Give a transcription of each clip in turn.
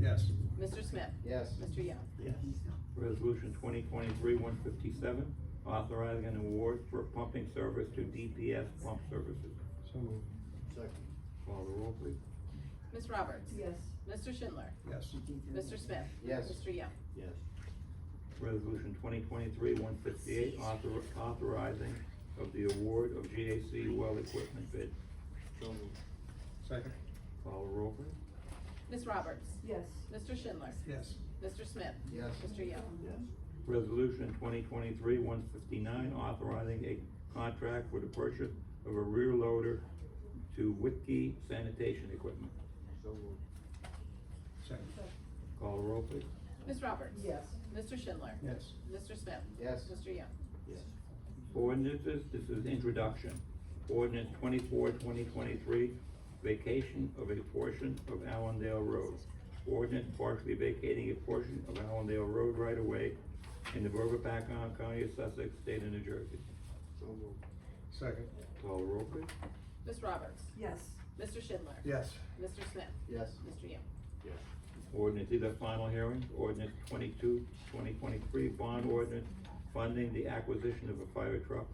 Yes. Mr. Smith? Yes. Mr. Young? Yes. Resolution twenty twenty-three one fifty-seven, authorizing an award for pumping service to DPS Pump Services. So moved. Second. Call the roll, please. Ms. Roberts? Yes. Mr. Schindler? Yes. Mr. Smith? Yes. Mr. Young? Yes. Resolution twenty twenty-three one fifty-eight, author, authorizing of the award of GAC well equipment bid. So moved. Second. Call the roll, please. Ms. Roberts? Yes. Mr. Schindler? Yes. Mr. Smith? Yes. Mr. Young? Yes. Resolution twenty twenty-three one fifty-nine, authorizing a contract for the purchase of a rear loader to Whitkey sanitation equipment. So moved. Second. Call the roll, please. Ms. Roberts? Yes. Mr. Schindler? Yes. Mr. Smith? Yes. Mr. Young? Yes. Ordinances, this is introduction. Ordinance 24, 2023, vacation of a portion of Allendale Road. Ordinance partially vacating a portion of Allendale Road right away in the Borough of Paccon, County of Sussex, State of New Jersey. So moved. Second. Call the roll, please. Ms. Roberts? Yes. Mr. Schindler? Yes. Mr. Smith? Yes. Mr. Young? Yes. Ordinance either final hearing, ordinance 22, 2023 bond ordinance funding the acquisition of a fire truck.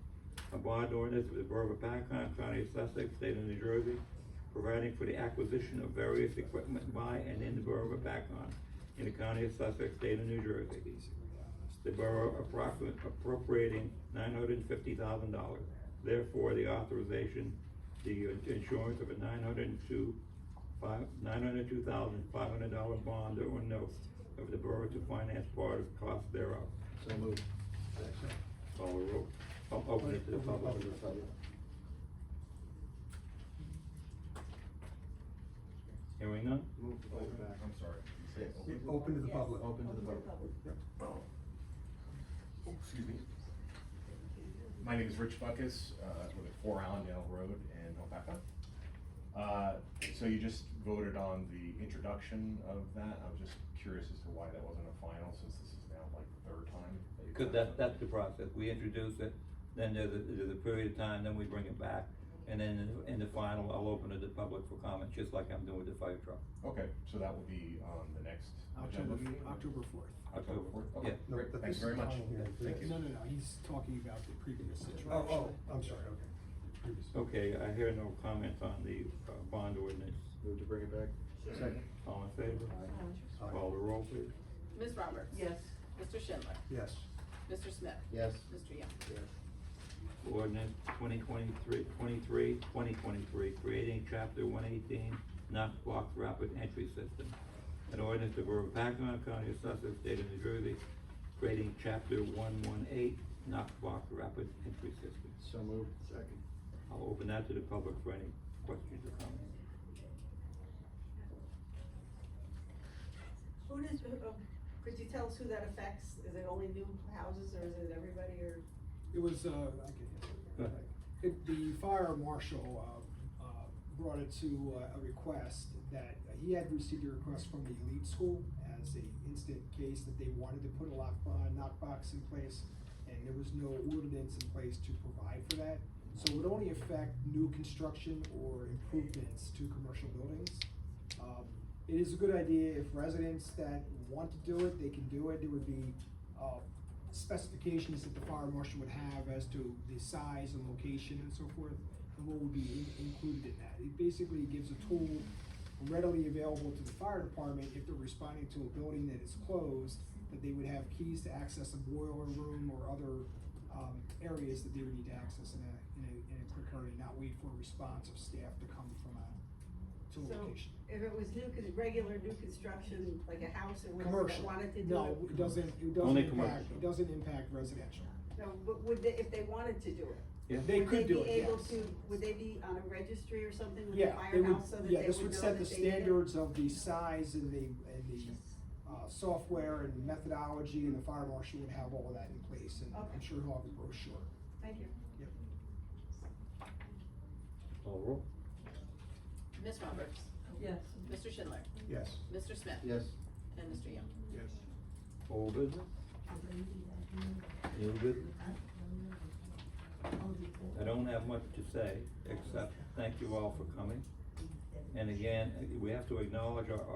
A bond ordinance of the Borough of Paccon, County of Sussex, State of New Jersey, providing for the acquisition of various equipment by and in the Borough of Paccon, in the County of Sussex, State of New Jersey. The Borough appro- appropriating nine hundred and fifty thousand dollars. Therefore, the authorization, the insurance of a nine hundred and two five, nine hundred two thousand, five hundred dollar bond or note of the borough to finance part of cost thereof. So moved. Second. Call the roll. I'll Open it to the public. Hearing none? Move to vote back. I'm sorry. You say open? Open to the public. Open to the public. Yep. Oh, Excuse me. My name is Rich Buckus, uh, with Four Allendale Road in Hopeka. Uh, so you just voted on the introduction of that, I was just curious as to why that wasn't a final, since this is now like the third time. you've Because done that, that's the something. process. We introduce it, then there's a, there's a period of time, then we bring it back. And then in the final, I'll open it to the public for comments, just like I'm doing with the fire truck. Okay, so that will be on the next. October, agenda? October fourth. October fourth, okay, Yeah. No, great, but thanks this very is much, final hearing. thank you. No, no, no, he's talking about the previous situation. Oh, oh, I'm sorry, okay. Previous. Okay, I hear no comments on the, uh, bond ordinance. Move to bring it back. Second. All in favor? Aye. Call the roll, please. Ms. Roberts? Yes. Mr. Schindler? Yes. Mr. Smith? Yes. Mr. Young? Yes. Ordinance 2023, 23, 2023, creating Chapter 118 Knox Block Rapid Entry System. An ordinance of Borough of Paccon, County of Sussex, State of New Jersey, creating Chapter 118 Knox Block Rapid Entry System. So moved. Second. I'll open that to the public for any questions or comments. Who does, who- um, could you tell us who that affects? Is it only new houses or is it everybody or? It was, uh, I can- ahead. it, the fire marshal, uh, uh, brought it to uh, a request that, uh, he had received a request from the elite school as a instant case that they wanted to put a lock, uh, knock box in place, and there was no ordinance in place to provide for that. So it would only affect new construction or improvements to commercial buildings. Um, it is a good idea if residents that want to do it, they can do it, there would be, uh, specifications that the fire marshal would have as to the size and location and so forth, and what would be in- included in that. It basically gives a tool readily available to the fire department if they're responding to a building that is closed, that they would have keys to access a boiler room or other, um, areas that they would need to access in a, in a, in a quick hurry, not wait for a response of staff to come from a, to a So, location. If it was new, cause regular new construction, like a house or whatever that Commercial, wanted to do it? no, it doesn't, it doesn't Only impact, commercial. it doesn't impact residential. No, but would they, if they wanted to do it? They would could do it, be able yes. to? Would they be on a registry or something with the Yeah, they would, firehouse so that they would know that they did it? yeah, this would set the standards of the size and the, and the, uh, software and methodology, and the fire marshal would have all of that in place, and I'm Okay. sure he'll have a brochure. Thank you. Call the roll. Ms. Roberts? Yes. Mr. Schindler? Yes. Mr. Smith? Yes. And Mr. Young? Yes. Old business? New business? I don't have much to say, except thank you all for coming. And again, we have to acknowledge our